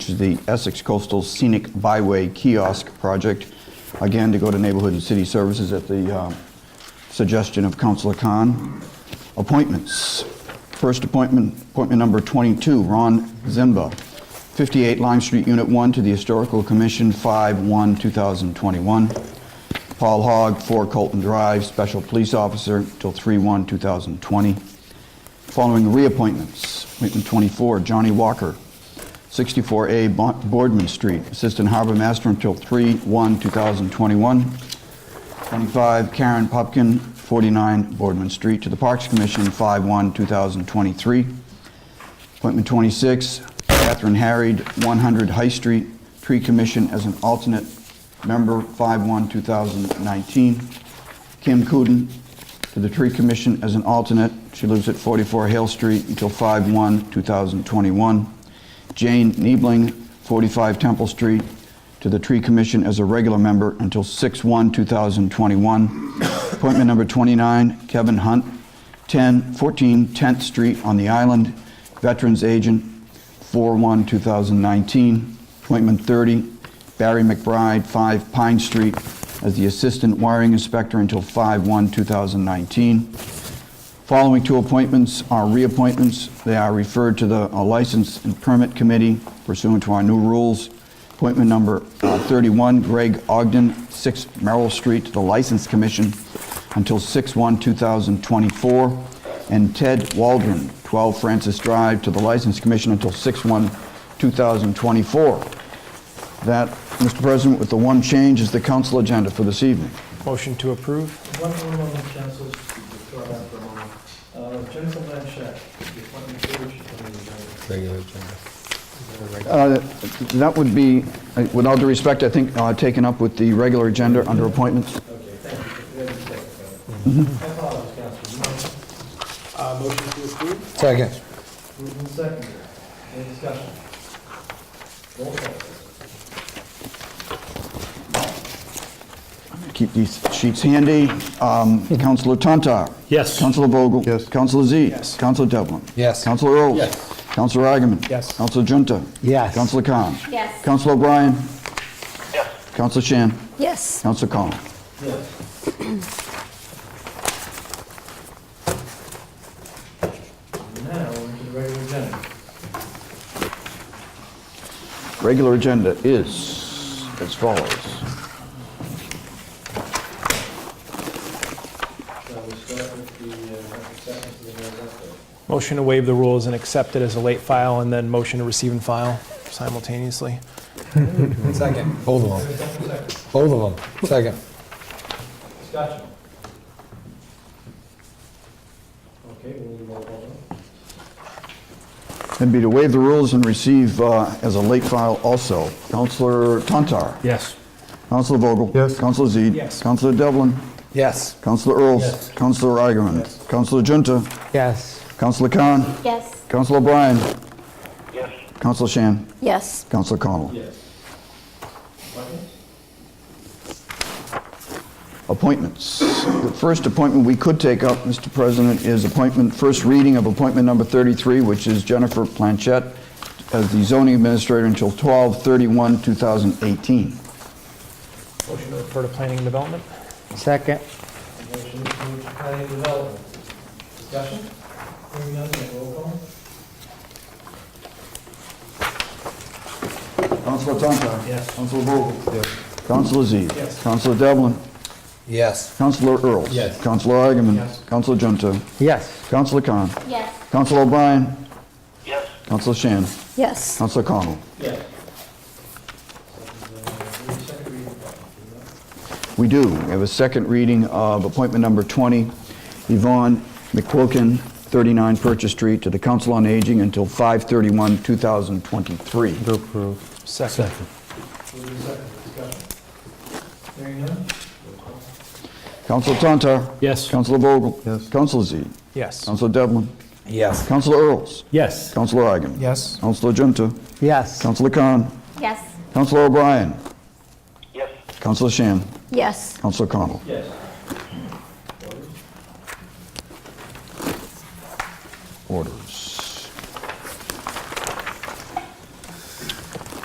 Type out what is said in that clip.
which is the Essex Coastal Scenic Byway Kiosk Project, again, to go to Neighborhood and City Services at the um, suggestion of Councilor Khan. Appointments. First appointment, appointment number 22, Ron Zimba, 58 Lime Street, Unit 1, to the Historical Commission, 5/1/2021. Paul Hogg, 4 Colton Drive, Special Police Officer, till 3/1/2020. Following reappointments, appointment 24, Johnny Walker, 64A Bo- Boardman Street, Assistant Harbor Master until 3/1/2021. 25 Karen Popkin, 49 Boardman Street, to the Parks Commission, 5/1/2023. Appointment 26, Catherine Harried, 100 High Street, Tree Commission as an alternate member, 5/1/2019. Kim Cooten to the Tree Commission as an alternate. She lives at 44 Hale Street until 5/1/2021. Jane Niebling, 45 Temple Street, to the Tree Commission as a regular member until 6/1/2021. Appointment number 29, Kevin Hunt, 10, 14 10th Street on the island, Veterans Agent, 4/1/2019. Appointment 30, Barry McBride, 5 Pine Street, as the Assistant Wiring Inspector until 5/1/2019. Following two appointments are reappointments. They are referred to the uh, License and Permit Committee pursuant to our new rules. Appointment number uh, 31, Greg Ogden, 6 Merrill Street, to the License Commission until 6/1/2024. And Ted Waldron, 12 Francis Drive, to the License Commission until 6/1/2024. That, Mr. President, with the one change, is the council agenda for this evening. Motion to approve? One more moment, councilors, withdraw that for a moment. Uh, Jennifer Blanchett, the appointment privilege committee, right? regular agenda. Uh, That would be, uh, with all due respect, I think, uh, taken up with the regular agenda under appointments. Okay, thank you. We have a second. I apologize, councilors. Motion- Uh, motion to approve? Second. Moved and seconded. Any discussion? Roll call. Keep these sheets handy. Um, Counselor Tontar. Yes. Counselor Vogel. Yes. Counselor Z. Yes. Counselor Devlin. Yes. Counselor Earls. Yes. Counselor Agaman. Yes. Counselor Junta. Yes. Counselor Khan. Yes. Counselor O'Brien. Yes. Counselor Shan. Yes. Counselor Collins. Yes. Now, we're to the regular agenda. Regular agenda is as follows. Shall we start with the uh, acceptance of the mayor's update? Motion to waive the rules and accept it as a late file, and then motion to receive and file simultaneously. Second. Both of them. Both of them. Second. Discussion. Okay, we need a roll call vote. And be to waive the rules and receive uh, as a late file also. Counselor Tontar. Yes. Counselor Vogel? Yes. Counselor Z? Yes. Counselor Devlin? Yes. Counselor Earls? Yes. Counselor Agaman? Yes. Counselor Junta? Yes. Counselor Khan? Yes. Counselor O'Brien? Yes. Counselor Shan? Yes. Counselor Connell? Yes. Appointments? Appointments. The first appointment we could take up, Mr. President, is appointment, first reading of appointment number 33, which is Jennifer Planchette as the zoning administrator until 12/31/2018. Motion to refer to planning and development? Second. Motion to move to planning and development. Discussion? Hearing none, then roll call. Counselor Tontar? Yes. Counselor Vogel? Yes. Counselor Z? Yes. Counselor Devlin? Yes. Counselor Earls? Yes. Counselor Agaman? Yes. Counselor Junta? Yes. Counselor Khan? Yes. Counselor O'Brien? Yes. Counselor Shan? Yes. Counselor Connell? Yes. Second reading appointment. We do. We have a second reading of appointment number 20, Yvonne McQuilkin, 39 Purchase Street, to the Council on Aging until 5/31/2023. To approve. Second. Move to second, discussion. Hearing none? Roll call. Counselor Tontar? Yes. Counselor Vogel? Yes. Counselor Z? Yes. Counselor Devlin? Yes. Counselor Earls? Yes. Counselor Agaman? Yes. Counselor Junta? Yes. Counselor Khan? Yes. Counselor O'Brien? Yes. Counselor Shan? Yes. Counselor Connell? Yes.